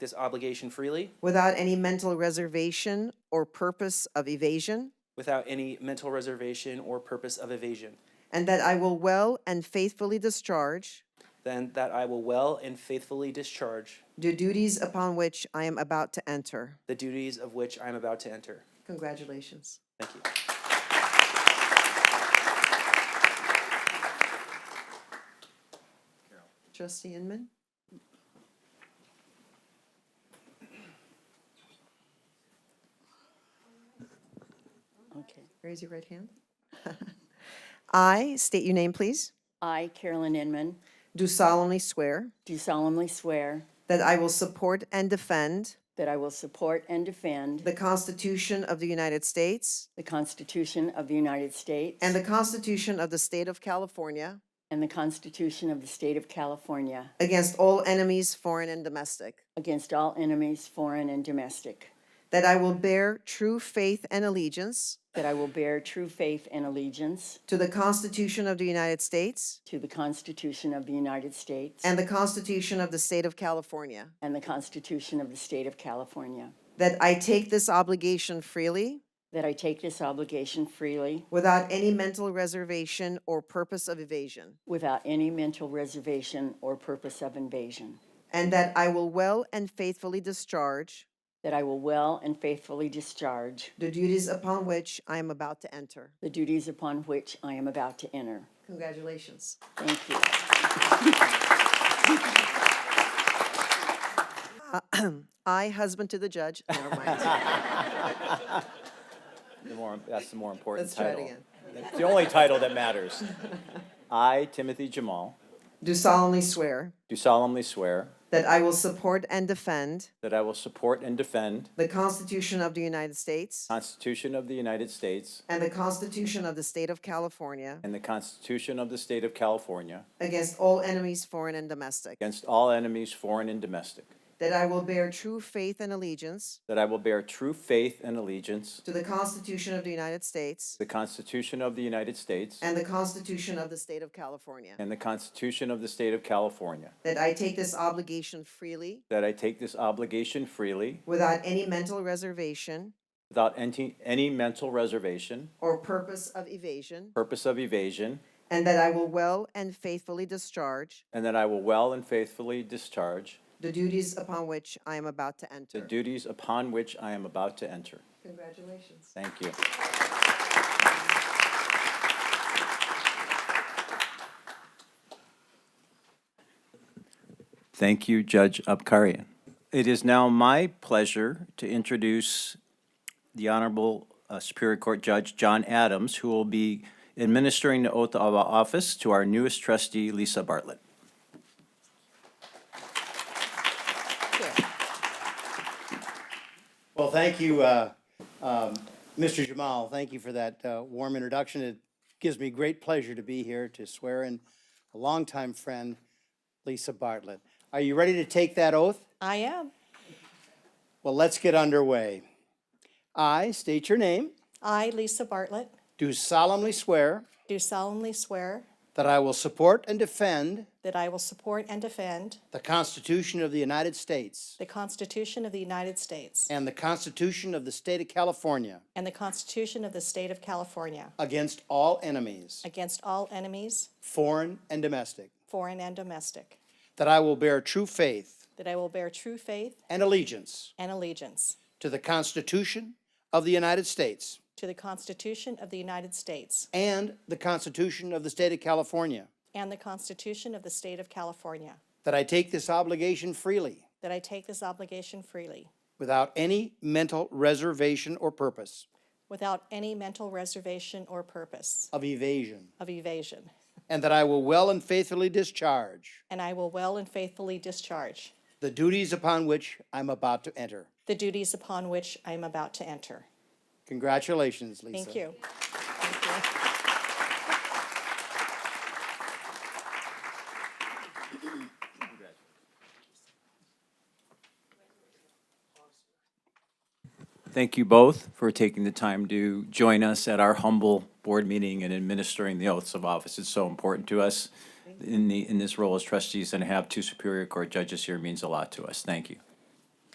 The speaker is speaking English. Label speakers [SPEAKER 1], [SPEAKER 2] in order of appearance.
[SPEAKER 1] this obligation freely
[SPEAKER 2] without any mental reservation or purpose of evasion,
[SPEAKER 1] without any mental reservation or purpose of evasion,
[SPEAKER 2] and that I will well and faithfully discharge
[SPEAKER 1] then that I will well and faithfully discharge
[SPEAKER 2] the duties upon which I am about to enter.
[SPEAKER 1] the duties of which I am about to enter.
[SPEAKER 2] Congratulations.
[SPEAKER 1] Thank you.
[SPEAKER 2] Trustee Inman?
[SPEAKER 3] Okay.
[SPEAKER 2] Raise your right hand. I, state your name, please,
[SPEAKER 3] I, Carolyn Inman,
[SPEAKER 2] do solemnly swear
[SPEAKER 3] do solemnly swear
[SPEAKER 2] that I will support and defend
[SPEAKER 3] that I will support and defend
[SPEAKER 2] the Constitution of the United States
[SPEAKER 3] the Constitution of the United States
[SPEAKER 2] and the Constitution of the State of California
[SPEAKER 3] and the Constitution of the State of California
[SPEAKER 2] against all enemies, foreign and domestic,
[SPEAKER 3] against all enemies, foreign and domestic,
[SPEAKER 2] that I will bear true faith and allegiance
[SPEAKER 3] that I will bear true faith and allegiance
[SPEAKER 2] to the Constitution of the United States
[SPEAKER 3] to the Constitution of the United States
[SPEAKER 2] and the Constitution of the State of California,
[SPEAKER 3] and the Constitution of the State of California,
[SPEAKER 2] that I take this obligation freely
[SPEAKER 3] that I take this obligation freely
[SPEAKER 2] without any mental reservation or purpose of evasion,
[SPEAKER 3] without any mental reservation or purpose of invasion,
[SPEAKER 2] and that I will well and faithfully discharge
[SPEAKER 3] that I will well and faithfully discharge
[SPEAKER 2] the duties upon which I am about to enter.
[SPEAKER 3] the duties upon which I am about to enter.
[SPEAKER 2] Congratulations.
[SPEAKER 3] Thank you.
[SPEAKER 2] I, husband to the judge, never mind.
[SPEAKER 4] The more, that's the more important
[SPEAKER 2] Let's try it
[SPEAKER 4] title.
[SPEAKER 2] again.
[SPEAKER 4] It's the only title that matters. I, Timothy Jamal,
[SPEAKER 2] Do solemnly swear
[SPEAKER 4] do solemnly swear
[SPEAKER 2] that I will support and defend
[SPEAKER 4] that I will support and defend
[SPEAKER 2] the Constitution of the United States
[SPEAKER 4] the Constitution of the United States
[SPEAKER 2] and the Constitution of the State of California
[SPEAKER 4] and the Constitution of the State of California
[SPEAKER 2] against all enemies, foreign and domestic,
[SPEAKER 4] against all enemies, foreign and domestic,
[SPEAKER 2] that I will bear true faith and allegiance
[SPEAKER 4] that I will bear true faith and allegiance to
[SPEAKER 2] to the Constitution of the United States
[SPEAKER 4] the Constitution of the United States
[SPEAKER 2] and the Constitution of the State of California,
[SPEAKER 4] and the Constitution of the State of California,
[SPEAKER 2] that I take this obligation freely
[SPEAKER 4] that I take this obligation freely
[SPEAKER 2] without any mental reservation
[SPEAKER 4] without any, any mental reservation,
[SPEAKER 2] or purpose of evasion,
[SPEAKER 4] purpose of evasion,
[SPEAKER 2] and that I will well and faithfully discharge
[SPEAKER 4] And that I will well and faithfully discharge
[SPEAKER 2] the duties upon which I am about to enter.
[SPEAKER 4] the duties upon which I am about to enter.
[SPEAKER 2] Congratulations.
[SPEAKER 4] Thank you. Thank you, Judge Abkarian. It is now my pleasure to introduce the Honorable uh, Superior Court Judge John Adams, who will be administering the oath of office to our newest trustee, Lisa Bartlett.
[SPEAKER 5] Well, thank you, uh, um, Mr. Jamal. Thank you for that uh, warm introduction. It gives me great pleasure to be here to swear in a longtime friend, Lisa Bartlett. Are you ready to take that oath?
[SPEAKER 6] I am.
[SPEAKER 5] Well, let's get underway. I state your name,
[SPEAKER 6] I, Lisa Bartlett,
[SPEAKER 5] do solemnly swear
[SPEAKER 6] do solemnly swear
[SPEAKER 5] that I will support and defend
[SPEAKER 6] that I will support and defend
[SPEAKER 5] the Constitution of the United States
[SPEAKER 6] the Constitution of the United States
[SPEAKER 5] and the Constitution of the State of California
[SPEAKER 6] and the Constitution of the State of California
[SPEAKER 5] against all enemies,
[SPEAKER 6] against all enemies,
[SPEAKER 5] foreign and domestic,
[SPEAKER 6] foreign and domestic,
[SPEAKER 5] that I will bear true faith
[SPEAKER 6] that I will bear true faith
[SPEAKER 5] and allegiance
[SPEAKER 6] and allegiance
[SPEAKER 5] To the Constitution of the United States
[SPEAKER 6] to the Constitution of the United States
[SPEAKER 5] and the Constitution of the State of California.
[SPEAKER 6] and the Constitution of the State of California,
[SPEAKER 5] That I take this obligation freely,
[SPEAKER 6] that I take this obligation freely
[SPEAKER 5] without any mental reservation or purpose
[SPEAKER 6] without any mental reservation or purpose
[SPEAKER 5] of evasion,
[SPEAKER 6] of evasion,
[SPEAKER 5] and that I will well and faithfully discharge
[SPEAKER 6] and I will well and faithfully discharge
[SPEAKER 5] the duties upon which I'm about to enter.
[SPEAKER 6] the duties upon which I am about to enter.
[SPEAKER 5] Congratulations, Lisa.
[SPEAKER 6] Thank you.
[SPEAKER 4] Thank you both for taking the time to join us at our humble board meeting and administering the oaths of office. It's so important to us in the, in this role as trustees and to have two Superior Court judges here means a lot to us. Thank you.